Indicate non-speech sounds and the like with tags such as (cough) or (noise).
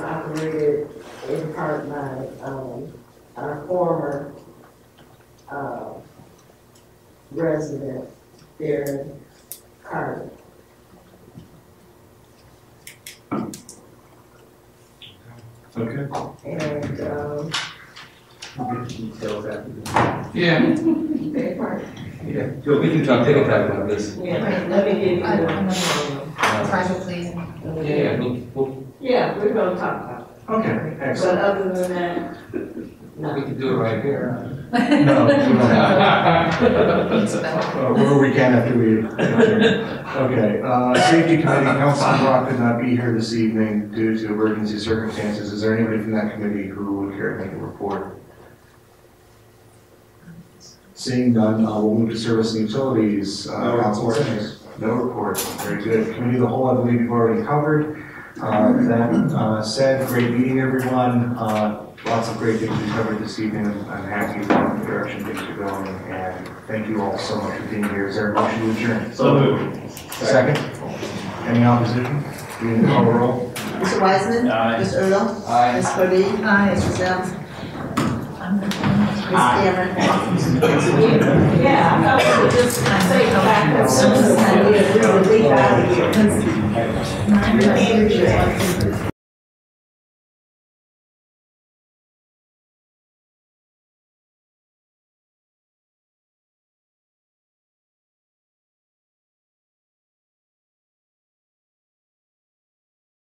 in part by, um, our former, uh, resident, Darren Carter. Okay. And, um, Details after. Yeah, that part, Yeah, so we can talk, take a time about this. yeah, let me give you. I- I'm not- um, Uh, Title, please. Yeah, yeah, we'll, we'll, Yeah, we're gonna talk about okay, it, excellent. but other than that, we no. can do it right here. (laughs) No, we don't have- But Uh, We're a weekend after we. Okay, uh, Safety Committee, Councilman Brock could not be here this evening due to emergency circumstances. Is there anybody from that committee who would care to make a report? Seeing none, uh, we'll move to Service and Utilities. uh, No Council report. Simmons. No report, very good. Committee of the Whole, I believe you've already covered. Uh, That uh, said, great meeting, everyone. Uh, Lots of great things we covered this evening. I'm happy with the direction things are going, and thank you all so much for being here. Is there a motion to adjourn? So moved. Second. Any opposition? We can call a roll. Mr. Wiseman. Mr. Earl. Aye. Ms. Purdy. Aye. Mr. Selms. Ms. Aye. Cameron. Yeah, I thought we just say the fact that since we were leaving out of here, Nine. energy.